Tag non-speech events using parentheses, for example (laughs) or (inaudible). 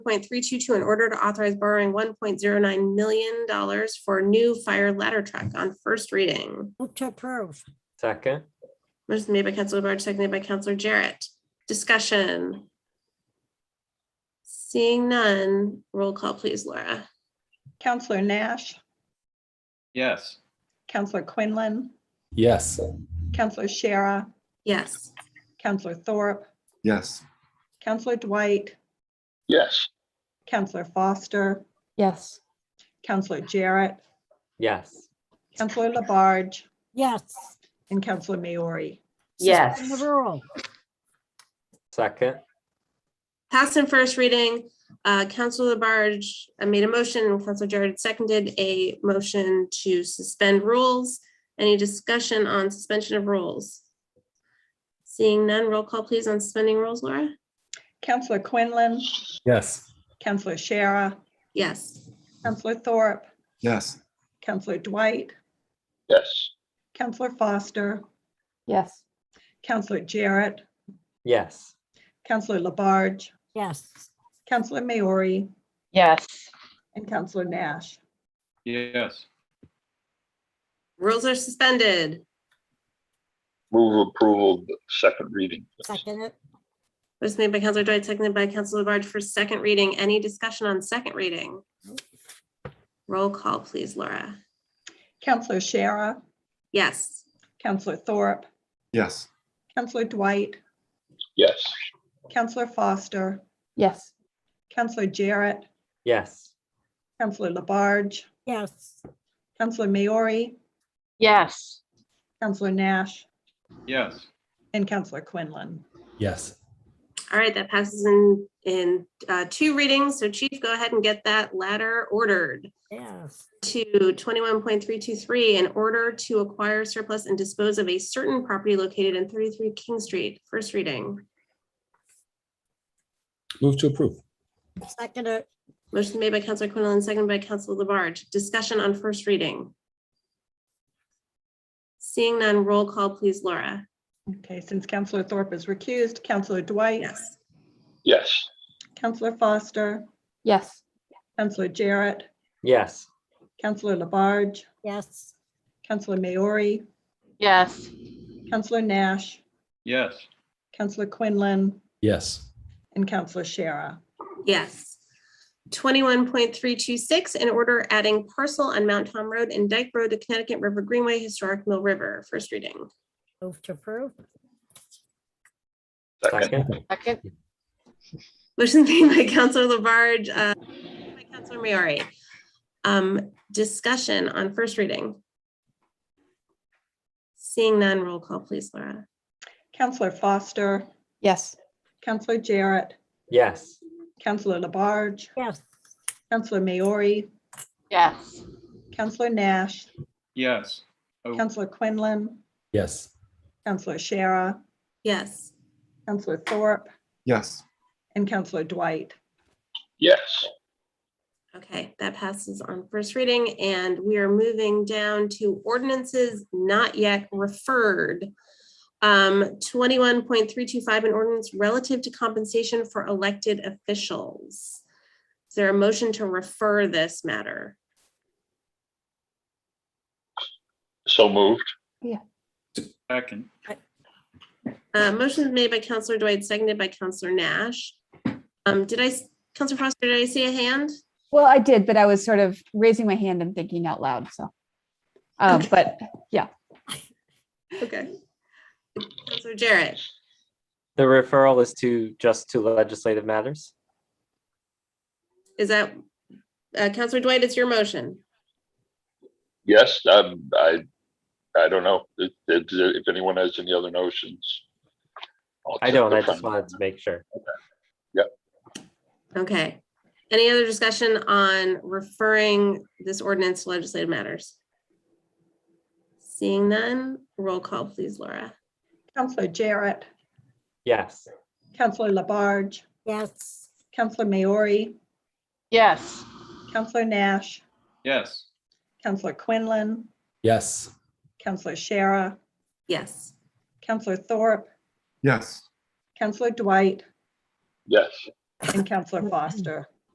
point three two two, in order to authorize borrowing one point zero nine million dollars for a new fire ladder truck on first reading. Move to approve. Second. Motion made by Counselor Barge, seconded by Counselor Jarrett. Discussion. Seeing none, roll call please, Laura. Counselor Nash, yes, Counselor Quinlan, yes, Counselor Shara, Yes. Counselor Thorpe, yes, Counselor Dwight, yes, Counselor Foster, yes, Counselor Jarrett, Yes. Counselor Labarge, Yes. and Counselor Maori. Suspend Yes. The rule. Second. Passed in first reading, uh, Counselor Labarge uh, made a motion, and Counselor Jarrett seconded a motion to suspend rules. Any discussion on suspension of rules? Seeing none, roll call please on suspending rules, Laura? Counselor Quinlan, yes, Counselor Shara, Yes. Counselor Thorpe, yes, Counselor Dwight, yes, Counselor Foster, yes, Counselor Jarrett, Yes. Counselor Labarge, Yes. Counselor Maori, yes, and Counselor Nash. yes, Rules are suspended. move approval, of the second reading. Second it. Was made by Counselor Dwight, seconded by Counselor Labarge for second reading. Any discussion on second reading? Roll call, please, Laura. Counselor Shara, Yes. Counselor Thorpe, yes, Counselor Dwight, Yes, Counselor Foster, yes, Counselor Jarrett, Yes. Counselor Labarge, Yes. Counselor Maori, yes. Counselor Nash, yes. and Counselor Quinlan. yes. All right, that passes in, in uh, two readings. So Chief, go ahead and get that ladder ordered Yes. to 21.323 in order to acquire surplus and dispose of a certain property located in 33 King Street. First reading. Move to approve. Second it. Motion made by Counselor Quinlan, seconded by Counselor Labarge. Discussion on first reading. Seeing none, roll call, please, Laura. Okay, since Counselor Thorpe is recused, Counselor Dwight, Yes. yes, Counselor Foster, Yes, Counselor Jarrett, Yes. Counselor Labarge, Yes. Counselor Maori, yes, Counselor Nash, Yes. Counselor Quinlan, Yes, and Counselor Shara. Yes. Twenty-one point three two six, in order adding parcel on Mount Tom Road and Dyke Road to Connecticut River Greenway Historic Mill River. First reading. Move to approve. second, Second. second, Motion (laughs) made by Counselor Labarge, uh, by Counselor Maori. Um, discussion on first reading. Seeing none, roll call, please, Laura. Counselor Foster, yes, Counselor Jarrett, Yes. Counselor Labarge, Yes. Counselor Maori, yes, Counselor Nash, Yes. Oh, Counselor Quinlan, yes, Counselor Shara, Yes. Counselor Thorpe, yes. and Counselor Dwight. yes. Okay, that passes on first reading, and we are moving down to ordinances not yet referred. Um, twenty-one point three two five, an ordinance relative to compensation for elected officials. Is there a motion to refer this matter? So moved, Second, Uh, motion is made by Counselor Dwight, seconded by Counselor Nash. Um, did I, s- Counselor Foster, did I see a hand? Well, I did, but I was sort of raising my hand and thinking out loud. So, um, Okay. but Okay. Counselor Jarrett, The referral is to just to legislative matters. is that, uh, Counselor Dwight, it's your motion? yes, um, I, I don't know, if, if- if anyone has any other notions. I'll I don't. I take the just front. wanted to make sure. Okay. Any other discussion on referring this ordinance to legislative matters? Seeing none, roll call, please, Laura. Counselor Jarrett, Yes. Counselor Labarge, Yes. Counselor Maori, yes, Counselor Nash, yes. Counselor Quinlan, yes, Counselor Shara, Yes. Counselor Thorpe, Yes. Counselor Dwight, Yes, and Counselor Foster.